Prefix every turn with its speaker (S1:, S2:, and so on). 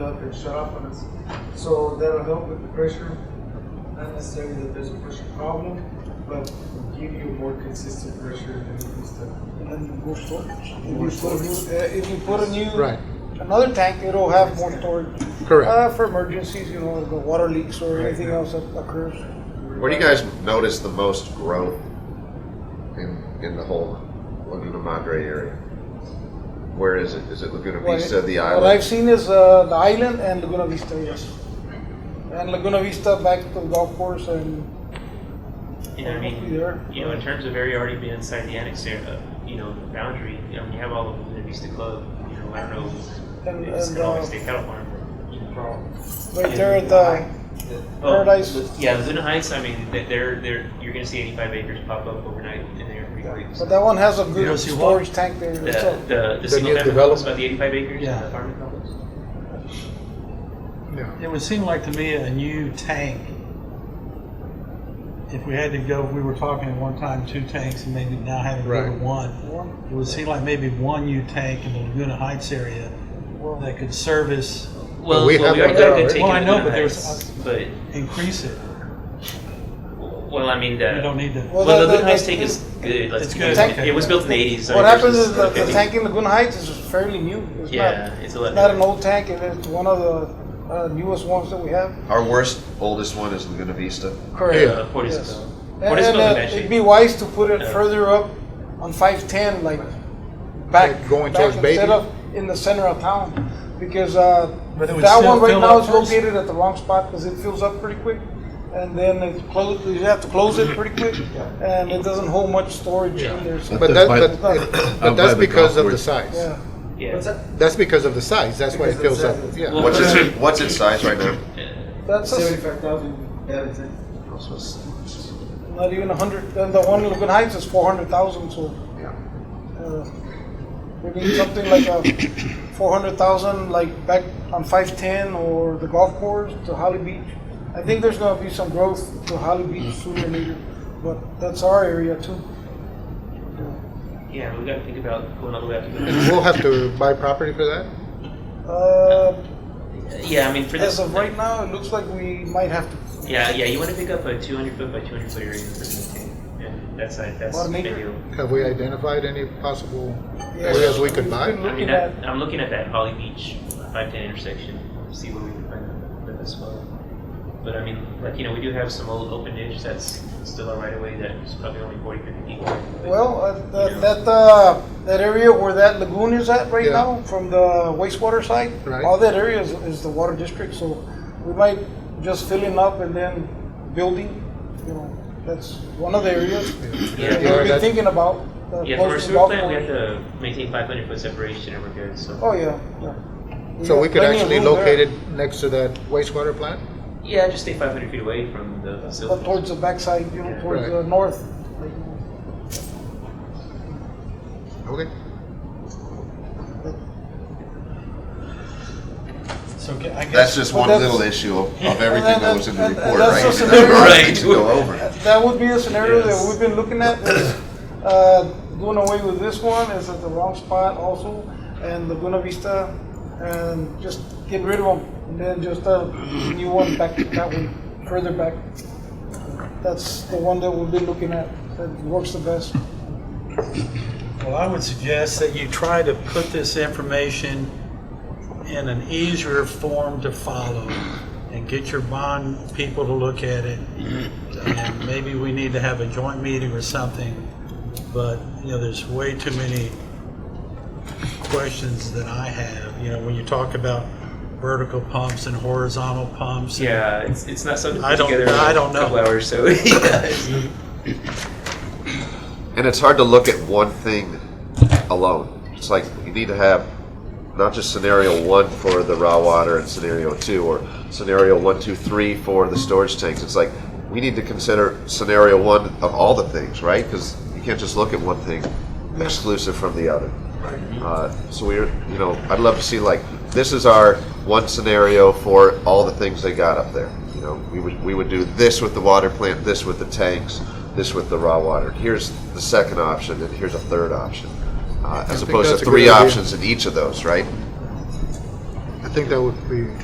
S1: up, it's shut off on us. So that'll help with the pressure, not necessarily that there's a pressure problem, but give you more consistent pressure than it used to.
S2: and then you go store. If you put a new, uh, if you put a new
S3: Right.
S2: another tank, it'll have more storage.
S3: Correct.
S2: Uh, for emergencies, you know, the water leaks or anything else that occurs.
S4: Where do you guys notice the most growth in in the whole Laguna Madre area? Where is it? Is it Laguna
S2: What-
S4: Vista, the
S2: What I've
S4: island?
S2: seen is uh, the island and Laguna Vista, yes. And Laguna Vista back to the golf course and
S5: You know, I
S2: hopefully
S5: mean,
S2: there.
S5: you know, in terms of area already being inside the annex area, uh, you know, the boundary, you know, you have all of the Vista Club, you know, I know
S2: And-
S5: it's
S2: and,
S5: gonna
S2: uh,
S5: always stay cattle farm. you know,
S2: Right there at the
S5: Oh,
S2: Paradise.
S5: Lu- Yeah, Luna Heights, I mean, they- they're, they're, you're gonna see eighty-five acres pop up overnight in there every week.
S2: But that one has a good
S5: Yeah.
S2: storage tank there.
S5: The,
S2: so-
S5: the, the
S3: new
S5: single family
S3: development.
S5: homes, about the eighty-five acres,
S6: Yeah.
S5: the apartment complex.
S3: Yeah.
S6: It would seem like to me a new tank. If we had to go, we were talking at one time two tanks and maybe now having to go to
S3: Right.
S6: one. It would seem like maybe one new tank in the Laguna Heights area that could service,
S3: Well, we have
S5: already
S3: that
S5: got a
S3: there
S5: good
S3: already.
S5: take
S6: Well,
S5: in
S6: I know,
S5: Luna
S6: but there's-
S5: Heights, But,
S6: increase it.
S5: well, I mean,
S6: We don't
S5: the,
S6: need to.
S2: Well,
S5: well, the
S2: the-
S5: Luna Heights
S2: the-
S5: take is good, let's,
S6: It's
S5: be
S6: good,
S5: honest.
S6: okay.
S5: it was built in the eighties.
S2: What happens is that the tank in Laguna Heights is fairly new. It's
S5: Yeah,
S2: not,
S5: it's
S2: it's not an
S5: eleven.
S2: old tank. It is one of the uh, newest ones that we have.
S4: Our worst, oldest one is Laguna Vista.
S2: Correct.
S5: Uh, Portisco.
S2: And, and, uh,
S5: Portisco's in bad
S2: it'd
S5: shape.
S2: be wise to put it
S5: Yeah.
S2: further up on 510, like back,
S3: Like going
S2: back
S3: towards Beatty?
S2: instead of in the center of town, because uh,
S6: But it would
S2: that
S6: still
S2: one right
S6: fill
S2: now
S6: up
S2: is
S6: first.
S2: located at the wrong spot because it fills up pretty quick, and then it's closed. You have to close it pretty quick, and it doesn't hold much storage in there. So
S3: But
S7: Up
S3: that,
S7: by-
S3: but, but
S7: by
S3: that's
S7: the
S3: because of the
S7: golf
S3: size.
S7: course.
S2: yeah.
S5: Yeah.
S1: What's that?
S3: That's because of the size. That's why it
S1: Because
S3: fills
S1: of
S3: up.
S1: the size.
S3: Yeah.
S5: Well-
S4: What's its what's its size right now?
S2: That's a,
S1: Seventy-five thousand habitant.
S4: So it's-
S2: not even 100. And the one in Laguna Heights is 400,000, so.
S4: yeah.
S2: Uh, we need something like a four hundred thousand, like back on five ten or the golf course to Holly Beach. I think there's gonna be some growth to Holly Beach
S3: Mm.
S2: sooner or later, but that's our area too.
S5: Yeah, we gotta think about going all the way up to
S3: And
S5: the.
S3: we'll have to buy property for that?
S2: Uh,
S5: Yeah, I mean, for this.
S2: as of right now, it looks like we might have to.
S5: Yeah, yeah, you wanna pick up a two hundred foot by two hundred foot area for this tank. And that's, like- that's
S2: Or make-
S5: ideal.
S3: Have we identified any possible areas we could
S2: We've been
S3: buy?
S5: I
S2: looking
S5: mean,
S2: at,
S5: that, I'm looking at that Holly Beach five ten intersection, see where we can find the, the best spot. But I mean, like, you know, we do have some old open ditch that's still a right of way that's probably only forty, fifty feet. wide. But-
S2: well, uh, that, that, uh, that area where that lagoon is at right
S3: Yeah.
S2: now, from the wastewater side,
S3: Right.
S2: all that area is, is the water district, so we might just filling up and then building, you know, that's one of the areas
S5: Yeah,
S2: that
S3: yeah,
S2: we've been
S3: that's-
S2: thinking about. uh,
S5: Yeah,
S2: close
S5: for a
S2: to
S5: sewer
S2: golf
S5: plant, we have
S2: course.
S5: to maintain five hundred foot separation and we're good, so.
S2: Oh, yeah, yeah.
S3: So
S2: got
S3: we could
S2: plenty of
S3: actually
S2: room
S3: locate
S2: there,
S3: it next to that wastewater plant?
S5: Yeah, just stay 500 feet away from the facility.
S2: But Uh, towards the backside, you know,
S5: Yeah.
S2: towards
S3: Right.
S2: the north.
S3: Okay.
S6: So ca- I
S4: That's
S6: guess,
S4: just
S2: But
S4: one
S2: that's-
S4: little issue of, of everything that was in the
S2: And- and- and
S4: report,
S2: that's
S4: right?
S2: just an
S4: That's what I
S5: area-
S4: need to go over.
S2: That would be a scenario that
S5: Yes.
S2: we've been looking at, is, uh, doing away with this one, is at the wrong spot also, and Laguna Vista, and just get rid of them, and then just a new one back, that one, further back. That's the one that we've been looking at, that works the best.
S6: well, I would suggest that you try to put this information in an easier form to follow and get your bond people to look at it. And maybe we need to have a joint meeting or something, but, you know, there's way too many questions that I have. You know, when you talk about vertical pumps and horizontal pumps. and-
S5: Yeah, it's, it's not something
S6: I
S5: put
S6: don't-
S5: together in
S6: I don't know.
S5: a couple hours, so yeah.
S4: And it's hard to look at one thing alone. It's like you need to have not just scenario one for the raw water and scenario two, or scenario one, two, three for the storage tanks. It's like we need to consider scenario one of all the things, right? Because you can't just look at one thing exclusive from the other. Uh, so we're, you know, I'd love to see like this is our one scenario for all the things they got up there. You know, we would we would do this with the water plant, this with the tanks, this with the raw water. Here's the second option, and here's a third option, uh, as
S3: think
S4: opposed
S3: that's a
S4: to
S3: good
S4: three
S3: idea.
S4: options in each of those, right?
S3: I think that would be